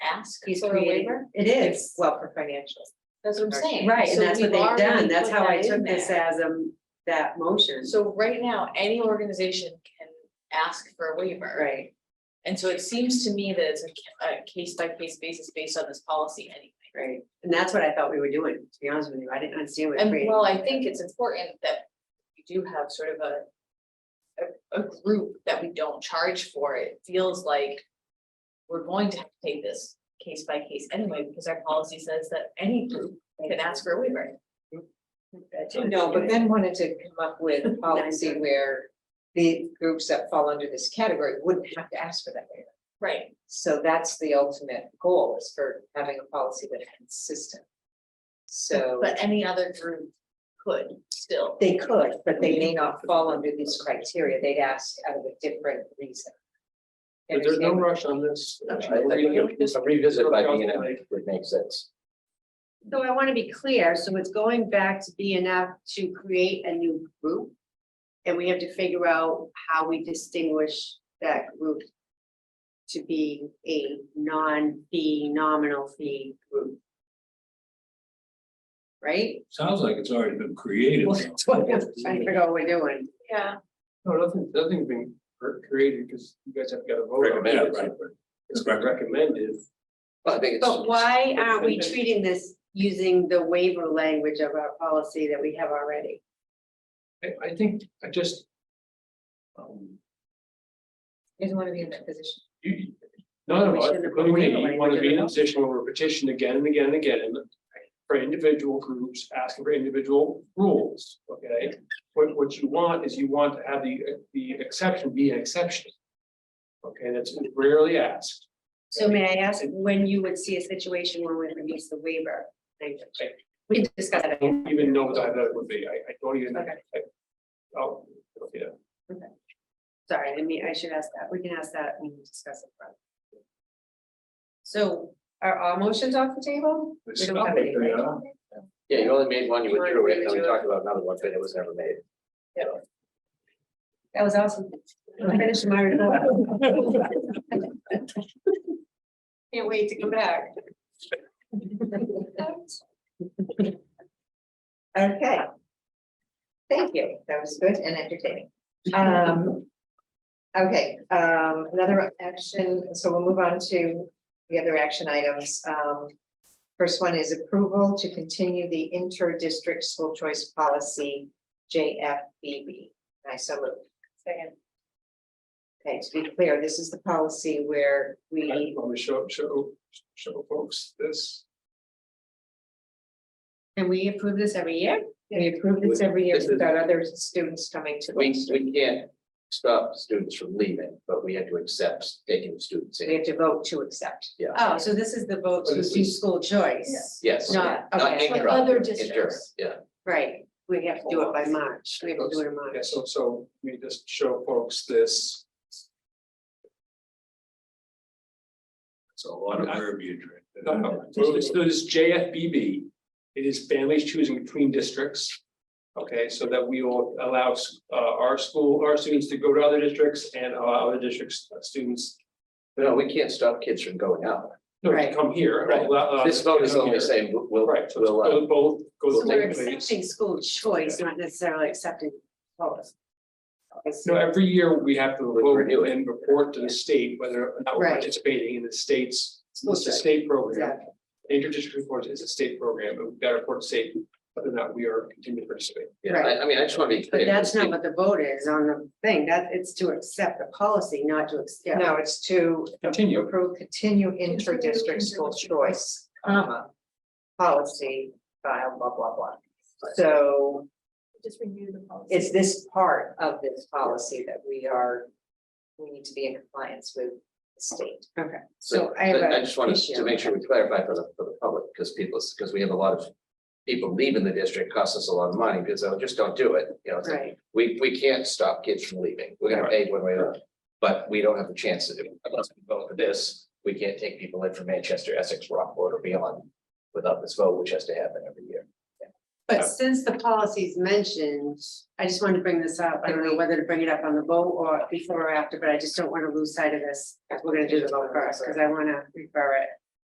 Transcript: ask He's for a creating- waiver? It is, well, for financial. That's what I'm saying. right, and So that's what we've they've already done, that's put how I that in took this there. as um, that motion, So right now, any organization can ask for a waiver. right, And so it seems to me that it's a ca- a case by case basis based on this policy anyway. right, and that's what I thought we were doing, to be honest with you, I didn't understand what And creating. while I think it's important that we do have sort of a. A, a group that we don't charge for, it feels like. We're going to have to take this case by case anyway, because our policy says that any group can ask for a waiver. No, but Ben wanted to come up with a policy where the groups that fall under this category wouldn't have to ask for that waiver. Right, So that's the ultimate goal is for having a policy that's consistent. So but any other group could still, they could, but they may not fall under these criteria. They'd ask out of a different reason. But there's no Understand? rush on this. Okay. I think Revisit if- by being an it makes sense. So I want to be clear, so it's going back to B and F to create a new group. And we have to figure out how we distinguish that group to be a non-fee, nominal fee group. Right? Sounds like it's already been created. Well, that's what I'm Trying to figure out what we're doing. yeah, No, nothing, nothing being created because you guys have got to vote. on it. Recommended. Yeah, right, but It's not recommended. But I think it's. But why aren't we it's- treating this using the waiver language of our policy that we have already? I, I think I just. um, You don't want to be in that position. You, no, We no, I- shouldn't have including me, waited you want to be in a like position where we're petitioned again and again and again. For individual groups, asking for individual rules, okay? What, what you want is you want to have the, the exception be an exception. Okay, that's rarely asked. So may I ask when you would see a situation where we release the waiver language? Okay. We can discuss I that. don't even know what that would be. I, I don't even. I- Oh, yeah. Sorry, I mean, I should ask that. We can ask that when we discuss it. further. So are all motions off the table? We don't have any, right? Yeah, you only made one, you You wanna withdrew it, and then we redo it? talked about another one, but it was never made. That was awesome. I finished my report. Can't wait to come back. Okay. Thank you. That was good and entertaining. Um. Okay, um, another action, so we'll move on to the other action items. Um. First one is approval to continue the inter-district school choice policy, JFBB. I so moved. second, Okay, to be clear, this is the policy where I we, want to show, show, show folks this. And we approve this every year? we approve this every year. This is- We've got other students coming to We, us. we can't stop students from leaving, but we had to accept taking students We in. have to vote to accept. Yeah. Oh, so this is the vote to But this do is- school choice? Yes. Not, Not okay, interrupt, other inter- districts. Yeah. right. We have to do it by March. We have to do it in March. Yeah, so, so we just show folks this. It's a lot of verbiage. right there. No, no, So this so this JFBB, it is families choosing between districts. Okay, so that we will allow uh, our school, our students to go to other districts and allow other districts, uh, students No, we can't stop kids from going out. no, Right. to come here. Right. allow- allow This vote is them to come only Uh, here. saying, we'll- we'll, Right, so we'll, uh, it's both, So goes we're both ways. accepting school choice, not necessarily accepting policy. No, every year we have to We vote renew it. and report to the state whether or not we're Right. participating in the state's, School it's a choice. state program. Interdistrict report is a state program, but we've got to report to state whether or not we are continuing to participate. yeah, I, I mean, I just want to be clear. But that's because not what the vote is on the thing, that, it's to accept the policy, not to accept. No, it's to Continue. approve continue inter-district school choice, comma, policy, file, blah, blah, blah. So just renew the policy. is this part of this policy that we are, we need to be in compliance with the state? Okay, So I But I have just wanted to issue. make sure we clarify for the, for the public, because people, because we have a lot of people leaving the district, costs us a lot of money, because they just don't do it, you know, it's like, right, we, we can't stop kids from leaving, we're gonna pay one way or another. But we don't have the chance to, do it. unless we vote for this, we can't take people in from Manchester, Essex, Rockport, or beyond without this vote, which has to happen every year. Oh. but since the policy's mentioned, I just wanted to bring this up, I don't know whether to bring it up on the vote or before or after, but I just don't want to lose sight of this. We're gonna do the vote first, because I want to refer it